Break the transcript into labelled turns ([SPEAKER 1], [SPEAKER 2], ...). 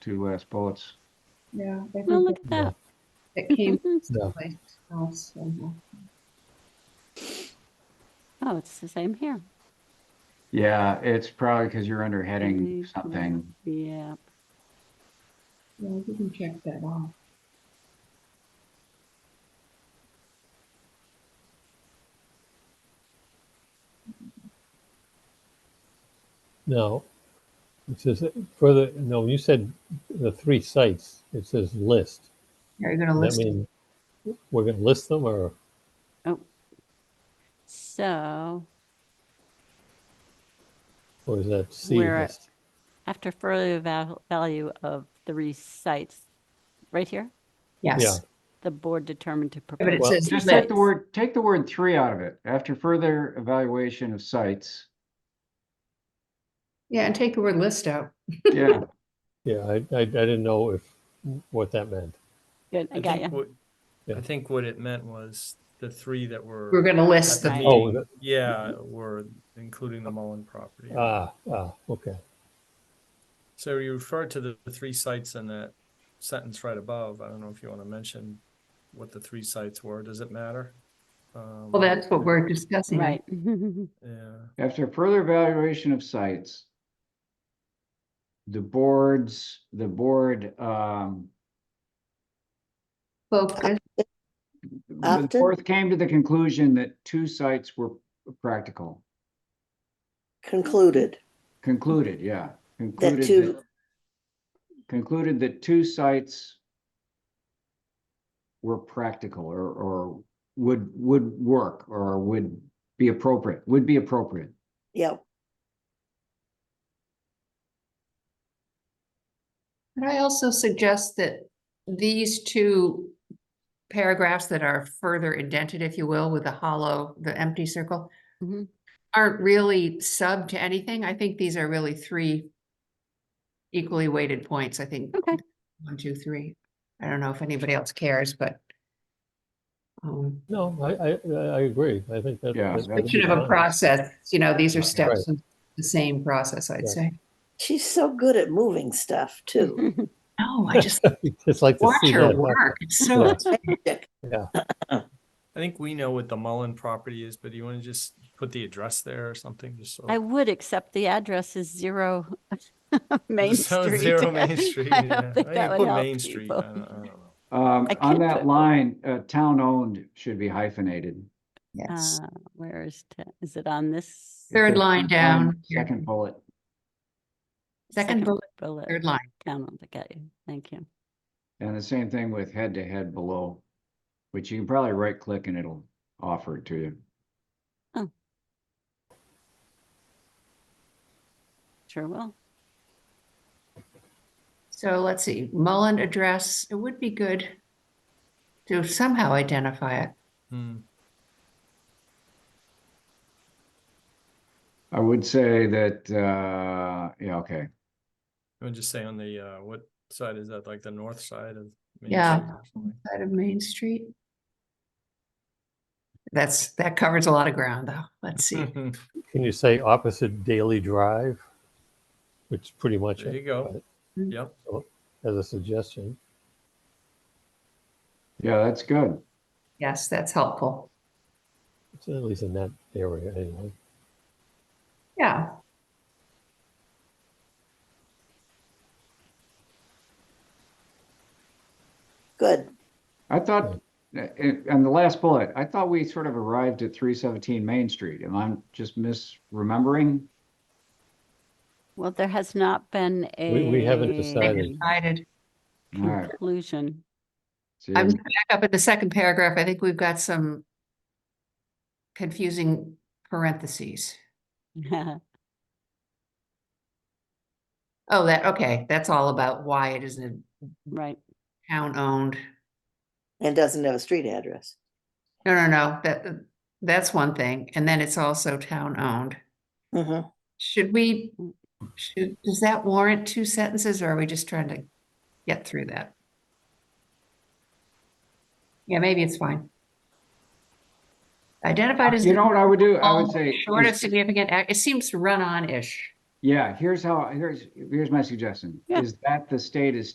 [SPEAKER 1] two last bullets.
[SPEAKER 2] Yeah, I think
[SPEAKER 3] Oh, look
[SPEAKER 2] it-
[SPEAKER 3] at that.
[SPEAKER 2] it came
[SPEAKER 4] Yeah.
[SPEAKER 2] someplace else. somehow.
[SPEAKER 3] Oh, it's the same here.
[SPEAKER 1] Yeah, it's probably because you're under heading
[SPEAKER 3] Heading,
[SPEAKER 1] something.
[SPEAKER 3] Yeah.
[SPEAKER 2] Yeah, I didn't check that off.
[SPEAKER 4] No. It says further, no, when you said the three sites, it says list.
[SPEAKER 2] Are you gonna list?
[SPEAKER 4] Does that
[SPEAKER 2] it?
[SPEAKER 4] mean we're gonna list them or,
[SPEAKER 3] So
[SPEAKER 4] or is that C
[SPEAKER 3] Where-
[SPEAKER 4] list?
[SPEAKER 3] after further val- value of three sites, right here,
[SPEAKER 4] Yeah.
[SPEAKER 2] Yes,
[SPEAKER 3] the board determined to
[SPEAKER 2] but it
[SPEAKER 3] propose.
[SPEAKER 4] Well,
[SPEAKER 2] says.
[SPEAKER 1] Just
[SPEAKER 2] list.
[SPEAKER 1] take the word, take the word three out of it. After further evaluation of sites.
[SPEAKER 2] Yeah, and take the word list out.
[SPEAKER 1] Yeah,
[SPEAKER 4] Yeah, I, I, I didn't know if, what that meant.
[SPEAKER 3] Good, I got
[SPEAKER 5] think
[SPEAKER 3] you.
[SPEAKER 5] what,
[SPEAKER 4] Yeah.
[SPEAKER 5] I think what it meant was the three that were.
[SPEAKER 2] We're gonna list
[SPEAKER 5] at the
[SPEAKER 2] them.
[SPEAKER 3] Right.
[SPEAKER 4] Oh,
[SPEAKER 5] meeting,
[SPEAKER 4] that-
[SPEAKER 5] Yeah, were including the Mullen property.
[SPEAKER 4] Ah, ah, okay.
[SPEAKER 5] So you referred to the the three sites in that sentence right above. I don't know if you want to mention what the three sites were. Does it matter? Um,
[SPEAKER 2] Well, that's what we're discussing.
[SPEAKER 3] Right.
[SPEAKER 5] Yeah.
[SPEAKER 1] after further evaluation of sites. The boards, the board, um,
[SPEAKER 2] Focus,
[SPEAKER 1] the
[SPEAKER 6] After?
[SPEAKER 1] fourth came to the conclusion that two sites were practical.
[SPEAKER 6] concluded
[SPEAKER 1] Concluded, yeah.
[SPEAKER 6] that
[SPEAKER 1] Concluded
[SPEAKER 6] two,
[SPEAKER 1] concluded that two sites were practical or, or would, would work or would be appropriate, would be appropriate.
[SPEAKER 6] yeah,
[SPEAKER 2] Could I also suggest that these two paragraphs that are further indented, if you will, with the hollow, the empty circle, Mm-hmm.
[SPEAKER 3] Mhm.
[SPEAKER 2] aren't really sub to anything. I think these are really three equally weighted points, I think.
[SPEAKER 3] Okay.
[SPEAKER 2] One, two, three. I don't know if anybody else cares, but um,
[SPEAKER 4] No, I, I, I agree. I think that.
[SPEAKER 1] Yeah,
[SPEAKER 4] that's
[SPEAKER 1] that's-
[SPEAKER 2] we should have a
[SPEAKER 4] fine.
[SPEAKER 2] process, you know, these are
[SPEAKER 1] Right.
[SPEAKER 2] steps in the same process, I'd
[SPEAKER 4] Right.
[SPEAKER 2] say.
[SPEAKER 6] she's so good at moving stuff too.
[SPEAKER 2] No, Oh, I just
[SPEAKER 4] It's like the
[SPEAKER 2] watch
[SPEAKER 4] C
[SPEAKER 2] her
[SPEAKER 4] list.
[SPEAKER 2] work. It's so
[SPEAKER 4] Yeah,
[SPEAKER 5] I think we know what the Mullen property is, but do you want to just put the address there or something? Just so.
[SPEAKER 3] I would, except the address is zero Main
[SPEAKER 5] So
[SPEAKER 3] Street.
[SPEAKER 5] Zero Main Street.
[SPEAKER 3] I
[SPEAKER 5] yeah.
[SPEAKER 3] don't think
[SPEAKER 5] Well, you
[SPEAKER 3] that would
[SPEAKER 5] put Main
[SPEAKER 3] help
[SPEAKER 5] Street.
[SPEAKER 3] people.
[SPEAKER 5] I don't- I don't know.
[SPEAKER 1] Um,
[SPEAKER 3] I
[SPEAKER 1] on
[SPEAKER 3] can't
[SPEAKER 1] that
[SPEAKER 3] put-
[SPEAKER 1] line, uh, town-owned should be hyphenated.
[SPEAKER 2] Yes.
[SPEAKER 3] Uh, Where is, ta- is it on this?
[SPEAKER 2] Third line down.
[SPEAKER 1] Second bullet.
[SPEAKER 2] Second bullet,
[SPEAKER 3] Bullet.
[SPEAKER 2] third line.
[SPEAKER 3] Down on the, got you. Thank you.
[SPEAKER 1] And the same thing with head-to-head below, which you can probably right-click and it'll offer it to you.
[SPEAKER 3] Sure will.
[SPEAKER 2] So let's see, Mullen address, it would be good to somehow identify it.
[SPEAKER 5] Hmm.
[SPEAKER 1] I would say that, uh, yeah, okay.
[SPEAKER 5] I would just say on the, uh, what side is that? Like the north side of? Main
[SPEAKER 2] Yeah.
[SPEAKER 5] Street or something?
[SPEAKER 2] Side of Main Street. That's, that covers a lot of ground though. Let's see.
[SPEAKER 5] Hmm.
[SPEAKER 4] can you say opposite Daily Drive? Which is pretty much.
[SPEAKER 5] There
[SPEAKER 4] it,
[SPEAKER 5] you go.
[SPEAKER 2] Mhm.
[SPEAKER 5] Yep.
[SPEAKER 4] but As a suggestion.
[SPEAKER 1] Yeah, that's good.
[SPEAKER 2] Yes, that's helpful.
[SPEAKER 4] It's at least in that area anyway.
[SPEAKER 2] Yeah.
[SPEAKER 6] Good.
[SPEAKER 1] I thought, uh, it- on the last bullet, I thought we sort of arrived at three seventeen Main Street. Am I just misremembering?
[SPEAKER 3] Well, there has not been a.
[SPEAKER 4] We- we haven't decided.
[SPEAKER 2] Decided.
[SPEAKER 3] Hmm.
[SPEAKER 1] All right.
[SPEAKER 3] Conclusion.
[SPEAKER 1] see,
[SPEAKER 2] I'm back up in the second paragraph. I think we've got some confusing parentheses. Oh, that, okay, that's all about why it isn't
[SPEAKER 3] Right.
[SPEAKER 2] town owned.
[SPEAKER 6] And doesn't have a street address.
[SPEAKER 2] No, no, no, that, that's one thing. And then it's also town owned.
[SPEAKER 6] Mhm.
[SPEAKER 2] Should we, should, does that warrant two sentences or are we just trying to get through that? Yeah, maybe it's fine. Identified as.
[SPEAKER 1] You know what I would do? I
[SPEAKER 2] all
[SPEAKER 1] would say,
[SPEAKER 2] Short of
[SPEAKER 1] is-
[SPEAKER 2] significant act, it seems run-on-ish.
[SPEAKER 1] Yeah, here's how, here's, here's my suggestion,
[SPEAKER 3] Yeah.
[SPEAKER 1] is that the state is